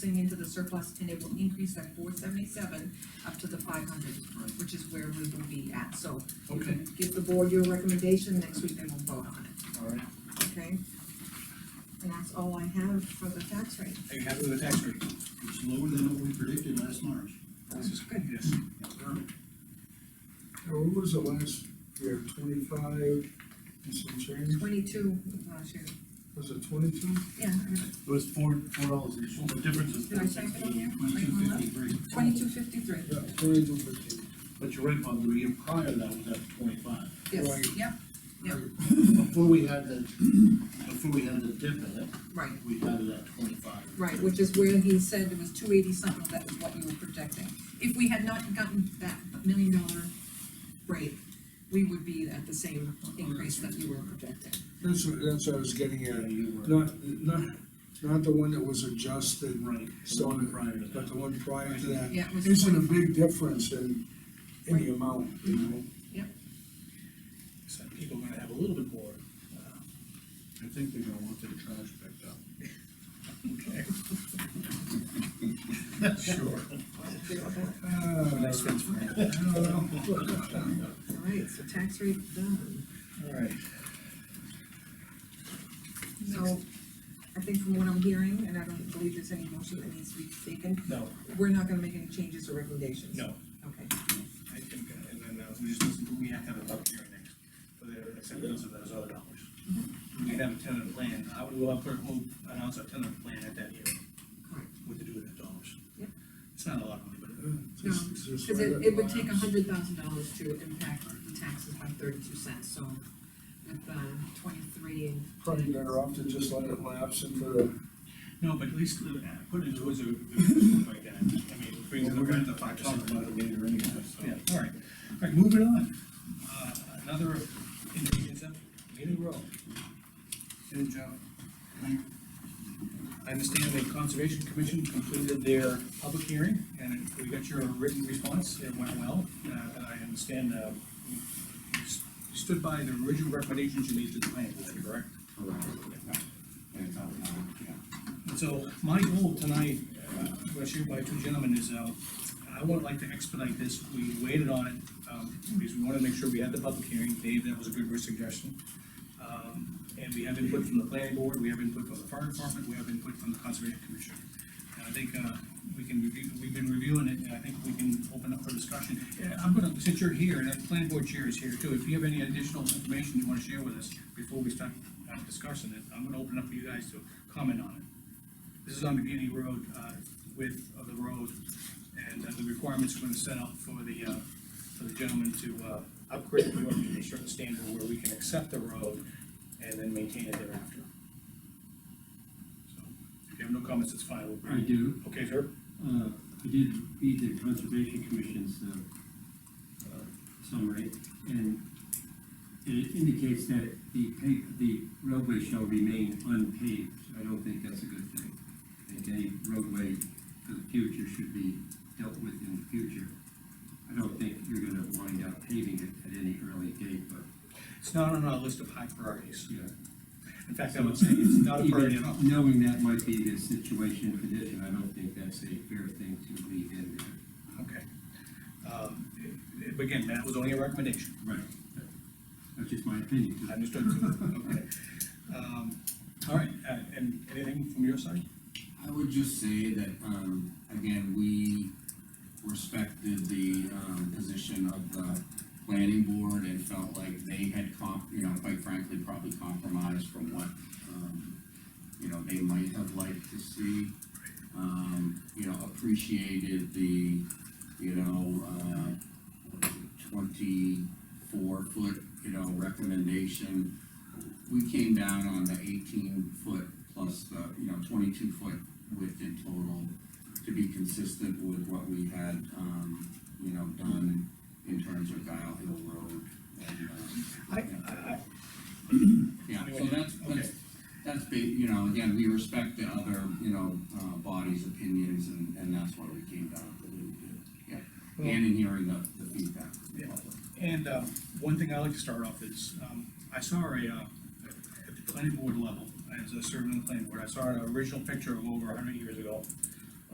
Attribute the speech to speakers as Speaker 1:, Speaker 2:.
Speaker 1: Going into the surplus and it will increase that four seventy-seven up to the five hundred, which is where we will be at, so. you
Speaker 2: Okay,
Speaker 1: can Give the board your recommendation, next week they will vote on
Speaker 2: all right.
Speaker 1: it, okay? And that's all I have for the tax rate.
Speaker 2: Are you happy with the tax rate?
Speaker 3: It's lower than what we predicted last March.
Speaker 2: This is good. Yes.
Speaker 4: Now, what was the last year, twenty-five and some change,
Speaker 1: Twenty-two last year.
Speaker 4: was it twenty-two?
Speaker 1: Yeah,
Speaker 5: It was four, four dollars, the difference is
Speaker 1: did I
Speaker 5: four
Speaker 1: type it in here?
Speaker 5: sixteen.
Speaker 3: Twenty-two fifty-three.
Speaker 1: Twenty-two fifty-three.
Speaker 4: Yeah, twenty-two fifteen.
Speaker 5: But you're right, Bob, the year prior, that was at twenty-five.
Speaker 1: Yes,
Speaker 4: Right.
Speaker 1: yep, Yep.
Speaker 5: Before we had the, before we had the dip in it,
Speaker 1: right,
Speaker 5: we had it at twenty-five.
Speaker 1: right, which is where he said it was two eighty something, that was what you were projecting. If we had not gotten that million dollar rate, we would be at the same increase that you were projecting.
Speaker 4: That's what, that's what I was getting
Speaker 5: Yeah,
Speaker 4: at,
Speaker 5: you were.
Speaker 4: not, not, not the one that was adjusted,
Speaker 5: Right, the
Speaker 4: So-
Speaker 5: one prior to
Speaker 4: but
Speaker 5: that.
Speaker 4: the one prior to that.
Speaker 1: Yeah, it was
Speaker 4: Isn't a big difference in any amount, you know?
Speaker 2: So people are gonna have a little bit more. uh,
Speaker 3: I think they're gonna want their trash picked up.
Speaker 2: Sure.
Speaker 4: Uh,
Speaker 2: Nice things for
Speaker 4: I don't know.
Speaker 1: All right, so tax rate done.
Speaker 2: All right.
Speaker 1: So, I think from what I'm hearing, and I don't believe there's any motion that needs to be taken,
Speaker 2: No,
Speaker 1: we're not gonna make any changes or recommendations.
Speaker 2: no,
Speaker 1: Okay,
Speaker 2: I think, uh, and then, uh, we just, listen- we have to have a public hearing next for the acceptance of those other dollars.
Speaker 3: Mm-hmm.
Speaker 2: We can have a tentative plan, I would, we'll have, clerk will announce a tentative plan at that hearing,
Speaker 1: correct.
Speaker 2: what to do with the dollars.
Speaker 1: Yep.
Speaker 2: It's not a lot of money, but uh,
Speaker 4: Just- just
Speaker 1: Because
Speaker 4: right
Speaker 1: it, it would
Speaker 4: at
Speaker 1: take a
Speaker 4: last.
Speaker 1: hundred thousand dollars to impact the taxes by thirty-two cents, so with, um, twenty-three and.
Speaker 4: Probably better off to just let it lapse into the,
Speaker 2: No, but at least uh, put it towards a, like that, I mean, it brings it
Speaker 3: Well, we're
Speaker 2: around to
Speaker 3: gonna
Speaker 2: five
Speaker 3: Talk
Speaker 2: percent.
Speaker 3: about it later anyway, so.
Speaker 2: Yeah, all right, all right, moving on, uh, another, it's up, meeting row. And, uh, I understand the Conservation Commission completed their public hearing, and we got your written response, it went well, uh, and I understand, uh, you s- you stood by the original recommendations you made to the planning board, correct? And So my goal tonight, uh, was shared by two gentlemen, is, um, I would like to expedite this, we waited on it, um, because we wanted to make sure we had the public hearing, Dave, that was a good suggestion. Um, and we have input from the planning board, we have input from the fire department, we have input from the conservation commission. And I think, uh, we can review, we've been reviewing it, and I think we can open up for discussion. Yeah, I'm gonna, since you're here, and the planning board chair is here too, if you have any additional information you wanna share with us before we start uh, discussing it, I'm gonna open up for you guys to comment on it. This is on McGinney Road, uh, width of the road, and uh, the requirements we're gonna set up for the, uh, for the gentleman to, uh, upgrade the road to a certain standard where we can accept the road and then maintain it thereafter. So, If you have no comments, it's fine,
Speaker 6: I
Speaker 2: we'll,
Speaker 6: do,
Speaker 2: okay, sir?
Speaker 6: uh, I did read the Conservation Commission's, uh, uh, summary, and it indicates that the pa, the roadway shall remain unpaved, I don't think that's a good thing. I think any roadway for the future should be dealt with in the future. I don't think you're gonna wind up paving it at any early date, but,
Speaker 2: It's not on our list of high priorities.
Speaker 6: you know,
Speaker 2: In fact, I would say it's not a priority at all.
Speaker 6: even Knowing that might be the situation and condition, I don't think that's a fair thing to leave in there.
Speaker 2: Okay. Um, eh, eh, Again, that was only a recommendation.
Speaker 6: Right. That's just my opinion.
Speaker 2: I Understood. Okay. Um, All right, uh, and anything from your side?
Speaker 7: I would just say that, um, again, we respected the, um, position of the planning board and felt like they had comp, you know, quite frankly, probably compromised from what, um, you know, they might have liked to see. Um, you know, appreciated the, you know, uh, twenty-four foot, you know, recommendation. We came down on the eighteen foot plus the, you know, twenty-two foot width in total to be consistent with what we had, um, you know, done in terms of Dial Hill Road and, um,
Speaker 2: I, I,
Speaker 7: yeah, so that's, that's, that's big, you know, again, we respect the other, you know, uh, bodies' opinions, and, and that's why we came down to what we did, yeah. And in hearing the, the feedback from the public.
Speaker 2: And uh, one thing I like to start off is, um, I saw a, uh, at the planning board level, as a servant on the planning board, I saw an original picture of over hundred years ago